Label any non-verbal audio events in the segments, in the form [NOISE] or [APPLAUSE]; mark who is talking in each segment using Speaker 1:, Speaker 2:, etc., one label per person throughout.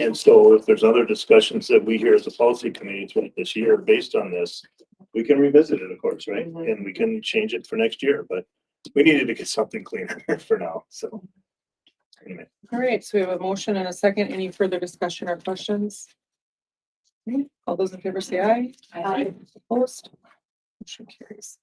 Speaker 1: And so if there's other discussions that we hear as a policy committee throughout this year based on this, we can revisit it, of course, right?
Speaker 2: Mhm.
Speaker 1: And we can change it for next year, but we needed to get something cleaner [LAUGHS] for now, so. Anyway,
Speaker 2: All right, so we have a motion and a second. Any further discussion or questions? Okay, All those in favor say aye.
Speaker 3: Aye.
Speaker 2: Opposed? Motion carries.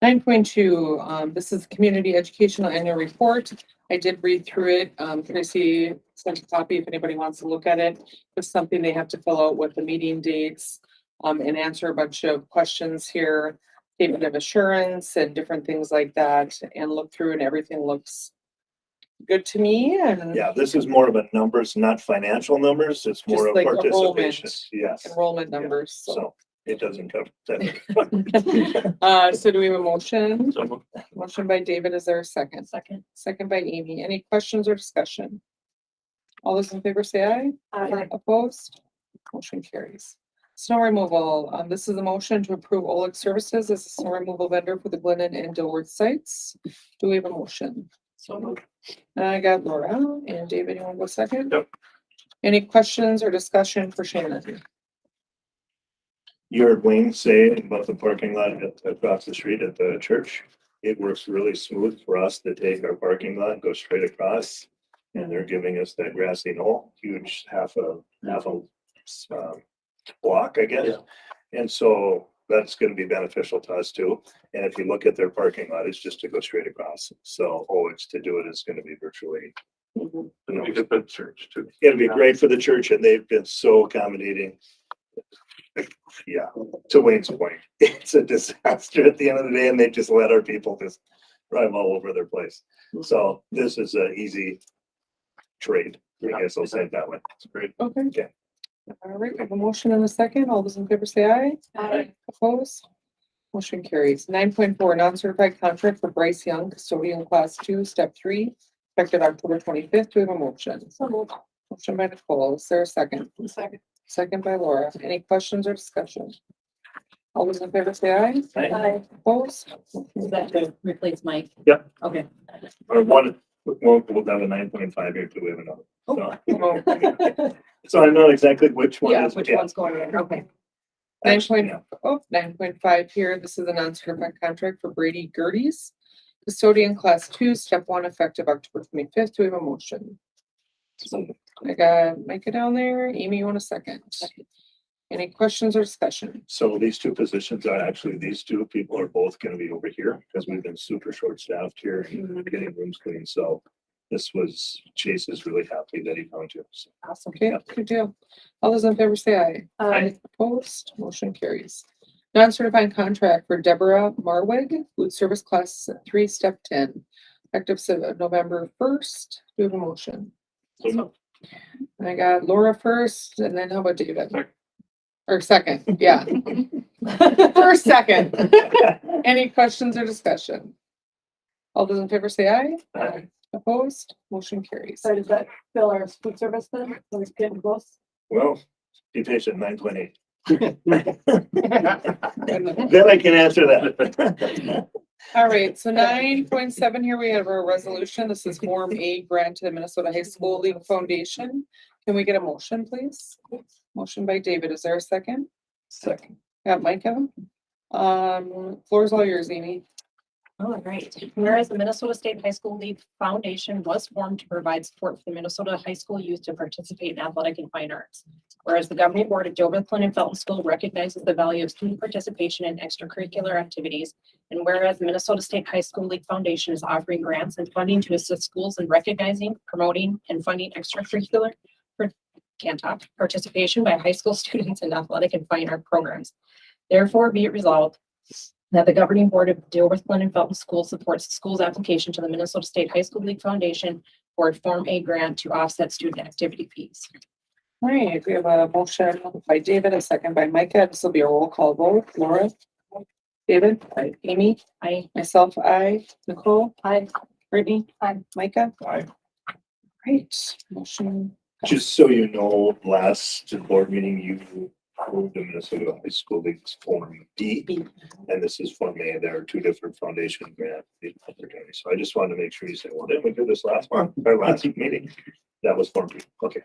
Speaker 2: Nine point two, um, this is Community Educational Annual Report. I did read through it. Um, Tracy sent a copy if anybody wants to look at it. It's something they have to fill out with the meeting dates, um, and answer a bunch of questions here. Statement of assurance and different things like that and look through and everything looks good to me and.
Speaker 1: yeah, this is more of a numbers, not financial numbers. It's more
Speaker 2: Just
Speaker 1: of
Speaker 2: like
Speaker 1: participation.
Speaker 2: enrollment.
Speaker 1: Yes,
Speaker 2: enrollment
Speaker 1: Yeah,
Speaker 2: numbers. So,
Speaker 1: so it doesn't cover that.
Speaker 2: [LAUGHS]
Speaker 1: [LAUGHS]
Speaker 2: uh, so do we have a motion?
Speaker 1: So moved.
Speaker 2: Motion by David, is there a second? Second. Second by Amy. Any questions or discussion? All those in favor say aye.
Speaker 3: Aye.
Speaker 2: Opposed? Motion carries. Snow removal, um, this is a motion to approve Oleg Services as a snow removal vendor for the Glennon and Dilworth sites. Do we have a motion?
Speaker 1: So moved.
Speaker 2: And I got Laura and David, you want to go second?
Speaker 1: Yep.
Speaker 2: Any questions or discussion for Shannon?
Speaker 1: You heard Wayne say about the parking lot at- across the street at the church. It works really smooth for us to take our parking lot, go straight across. And they're giving us that grassy knoll, huge half a, half a um, block, I guess. And so that's gonna be beneficial to us too. And if you look at their parking lot, it's just to go straight across. So always to do it is gonna be virtually.
Speaker 4: And we could put church too.
Speaker 1: It'll be great for the church and they've been so accommodating. Yeah, to Wayne's point, [LAUGHS] it's a disaster at the end of the day and they just let our people just drive all over their place. So this is a easy trade, I guess I'll say it that way. It's great.
Speaker 2: Okay.
Speaker 1: Yeah.
Speaker 2: All right, we have a motion and a second. All those in favor say aye.
Speaker 3: Aye.
Speaker 2: Opposed? Motion carries. Nine point four, non-certified contract for Bryce Young, custodian class two, step three, effective October twenty-fifth. Do we have a motion?
Speaker 3: So moved.
Speaker 2: Motion by Nicole. Is there a second?
Speaker 3: Second.
Speaker 2: Second by Laura. Any questions or discussion? All those in favor say aye.
Speaker 3: Aye.
Speaker 2: Opposed?
Speaker 3: Is that to replace Mike?
Speaker 1: Yep.
Speaker 3: Okay.
Speaker 1: Or one, we'll, we'll have a nine point five here too, we have another.
Speaker 2: Oh.
Speaker 1: So- [LAUGHS] So I know exactly which one
Speaker 3: Yeah,
Speaker 1: is.
Speaker 3: which one's going in? Okay.
Speaker 2: Nine point,
Speaker 1: Yeah.
Speaker 2: oh, nine point five here, this is a non-certified contract for Brady Gertie's custodian class two, step one, effective October twenty-fifth, do we have a motion? I got Micah down there, Amy, you want a second?
Speaker 3: Second.
Speaker 2: Any questions or discussion?
Speaker 1: So these two positions are actually, these two people are both gonna be over here because we've been super short staffed here and getting rooms clean. So this was, Chase is really happy that he found you. So
Speaker 3: Awesome.
Speaker 2: Okay,
Speaker 1: Yeah.
Speaker 2: good deal. All those in favor say aye.
Speaker 3: Aye.
Speaker 2: Opposed, motion carries. Non-certified contract for Deborah Marwig, food service class three, step ten, effective se- November first, do we have a motion?
Speaker 1: so
Speaker 2: I got Laura first and then how about David? Or second, yeah. First, second. Any questions or discussion? All those in favor say aye.
Speaker 1: Aye.
Speaker 2: Opposed, motion carries.
Speaker 3: So does that fill our food service then? Those getting close?
Speaker 1: [LAUGHS] Well, be patient, nine point eight. [LAUGHS]
Speaker 2: All
Speaker 1: Then I can answer that. [LAUGHS]
Speaker 2: right, so nine point seven here, we have our resolution. This is Form A grant to the Minnesota High School League Foundation. Can we get a motion, please? Motion by David. Is there a second?
Speaker 1: Second.
Speaker 2: Got Micah? Um, floor is all yours, Amy.
Speaker 5: Oh, great. Whereas the Minnesota State High School League Foundation was formed to provide support for the Minnesota high school youth to participate in athletic and fine arts. Whereas the governing board of Joblin and Felton School recognizes the value of student participation in extracurricular activities. And whereas the Minnesota State High School League Foundation is offering grants and funding to assist schools in recognizing, promoting, and funding extracurricular per- can't talk, participation by high school [LAUGHS] students in athletic and fine art programs. Therefore, be it resolved that the governing board of Dearborn Glen and Felton School supports the school's application to the Minnesota State High School League Foundation for a Form A grant to offset student activity fees.
Speaker 2: All right, we have a motion by David, a second by Micah. This will be a roll call vote. Laura? David? Amy?
Speaker 5: I,
Speaker 2: Myself, I. Nicole?
Speaker 3: Aye.
Speaker 2: Brittany?
Speaker 3: Aye.
Speaker 2: Micah?
Speaker 1: Aye.
Speaker 2: Great, motion.
Speaker 1: Just so you know, last board meeting, you approved the Minnesota High School League's Form D.
Speaker 2: B.
Speaker 1: And this is Form A. There are two different foundation grant opportunities. So I just wanted to make sure you said, well, didn't we do this last one, our last meeting? That was Form B. Okay,